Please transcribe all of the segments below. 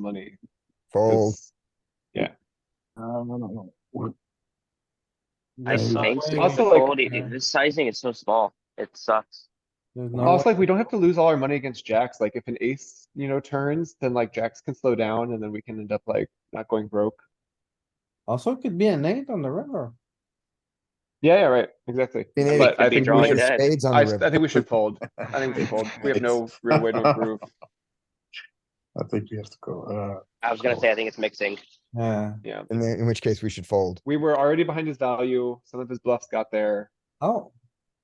money. Oh. Fold. It's- Um, I Yeah, suck. think It's so. Also, like- fold. It- it- The sizing is so small. It sucks. There's no Also, way. like, we don't have to lose all our money against jacks. Like, if an ace, you know, turns, then like jacks can slow down and then we can end up like not going broke. Also could be an eight on the river. Yeah, yeah, right, exactly. Queen eight, But I could be think we drawing should, dead. Spades I, on the s- I river. think we should fold. I think we fold. We have no real way to improve. I think we have to go, uh, I was gonna say, I think it's mixing. Yeah. In, the- in which case we should fold. We were already behind his value. Some of his bluffs got there. Oh.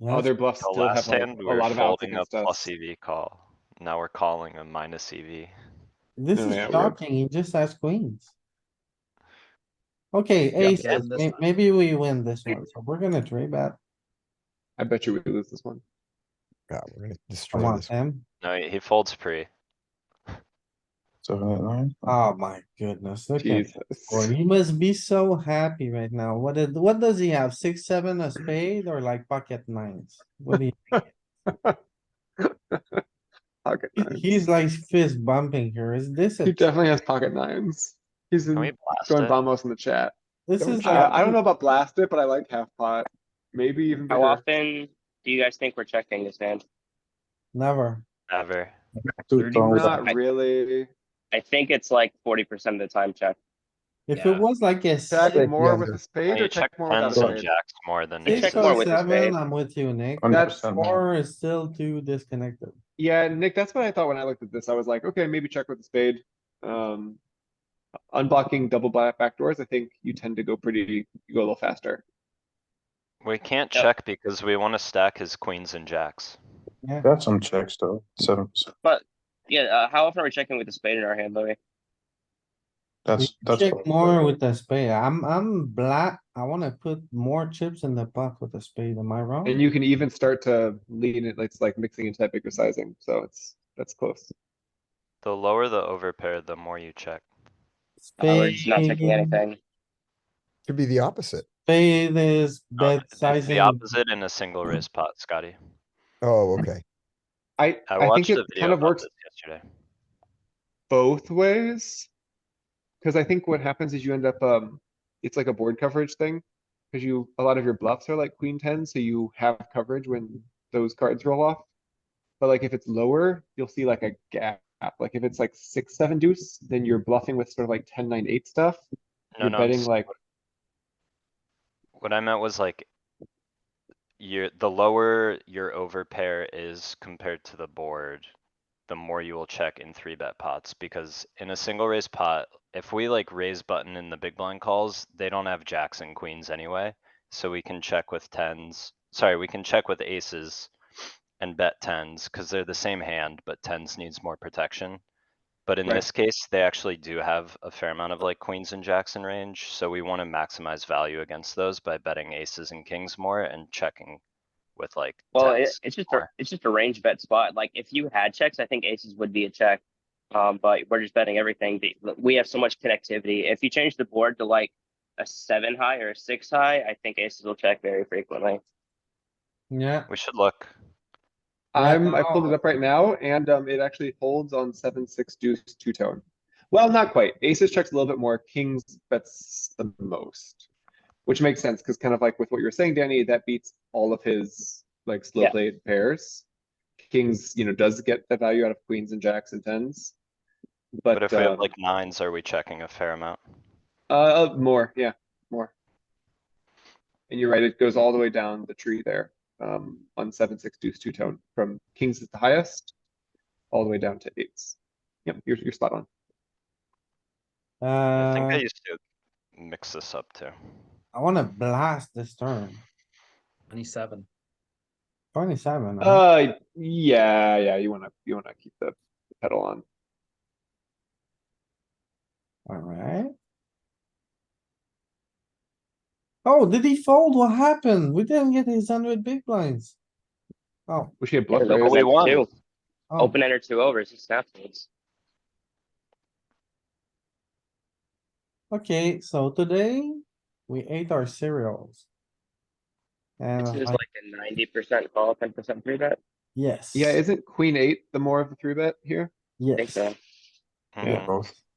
yes. Other bluffs The still have last like, hand, a we were lot of outs folding a against us. plus EV call. Now we're calling a minus E EV. This Oh, is yeah, we're- shocking. He just has queens. Okay, Yeah, ace, and this may- one. maybe we win this one, so we're gonna three bet. I bet you we lose this one. God, we're gonna Come destroy on, this. Tim. No, he he folds pre. seven, eight, nine. Oh my goodness, look at, boy, Jesus. he must be so happy right now. What did, what does he have? Six, seven, a spade or like pocket nines? What do you, Pocket he- nines. he's like fist bumping here. Is this, a- He definitely has pocket nines. He's Can we in- blast going it? Vamos in the chat. this is like. I, I don't know about blast it, but I like half pot. Maybe even How bigger. often do you guys think we're checking this hand? Never. Never. Two Thirty tones. percent. Not really. I think it's like forty percent of the time check. If it Yeah. was like a Check six, more with under. a spade You or check check more without a tens and spade? jacks more than They you six check check. more or with a spade. seven, I'm with you, Nick. Hundred That's percent, man. Four is still too disconnected. Yeah, Nick, that's what I thought when I looked at this. I was like, okay, maybe check with a spade. Um, unblocking double black backdoors, I think you tend to go pretty, you go a little faster. We can't Yep. check because we wanna stack his queens and jacks. That's some checks though, seven percent. Yeah, uh, how often are we checking with the spade in our hand, We Louis? That's, that's. Check what- more with the spade. I'm, I'm black. I wanna put more chips in the pot with the spade. Am I And wrong? you can even start to lean it, it's like mixing into that bigger sizing, so it's, that's close. The lower the overpair, the more you check. Uh, we're just not checking Spade- anything. Could be the opposite. Spade is No, bed it's sizing. The opposite in a single raise pot, Scotty. Oh, okay. I, I I think watched it a video kind of about works this yesterday. both ways. Cause I think what happens is you end up, um, it's like a board coverage thing. Cause you, a lot of your bluffs are like queen ten, so you have coverage when those cards roll off. But like if it's lower, you'll see like a gap. Like if it's like six, seven deuce, then you're bluffing with sort of like ten, nine, eight stuff. No, You're no, betting it's- like, what I meant was like. Your, the lower your overpair is compared to the board, the more you will check in three bet pots, because in a single raise pot, if we like raise button in the big blind calls, they don't have jacks and queens anyway. So we can check with tens, sorry, we can check with aces and bet tens, cause they're the same hand, but tens needs more protection. But in Right. this case, they actually do have a fair amount of like queens and jacks in range, so we wanna maximize value against those by betting aces and kings more and checking with like Well, it, tens. it's just a, more. it's just a range bet spot. Like if you had checks, I think aces would be a check. Um, but we're just betting everything. The- We have so much connectivity. If you change the board to like a seven high or a six high, I think aces will check very frequently. Yeah, We should look. I'm, I pulled now- it up right now and, um, it actually holds on seven, six deuce, two tone. Well, not quite. Aces checks a little bit more, kings bets the most. Which makes sense, cause kind of like with what you were saying, Danny, that beats all of his like slow Yeah. played pairs. Kings, you know, does get the value out of queens and jacks and tens. But if But, we uh, have like nines, are we checking a fair amount? uh, more, yeah, more. And you're right, it goes all the way down the tree there, um, on seven, six deuce, two tone, from kings is the highest. All the way down to eights. Yep, you're, you're spot on. I think I uh, used to mix this up too. I wanna blast this turn. Twenty-seven. Twenty-seven, huh? Uh, yeah, yeah, you wanna, you wanna keep the pedal on. alright. Oh, did he fold? What happened? We didn't get his hundred big blinds. Oh. Wish he had Yeah, bluff look Well, what raised. we we won. do. oh. Open ender two overs. It snaps. things. Okay, so today we ate our cereals. And This I'm is like, like a ninety percent call, ten percent three bet. yes. Yeah, isn't queen eight the more of the three bet here? I think Yes, so. Mhm. Both.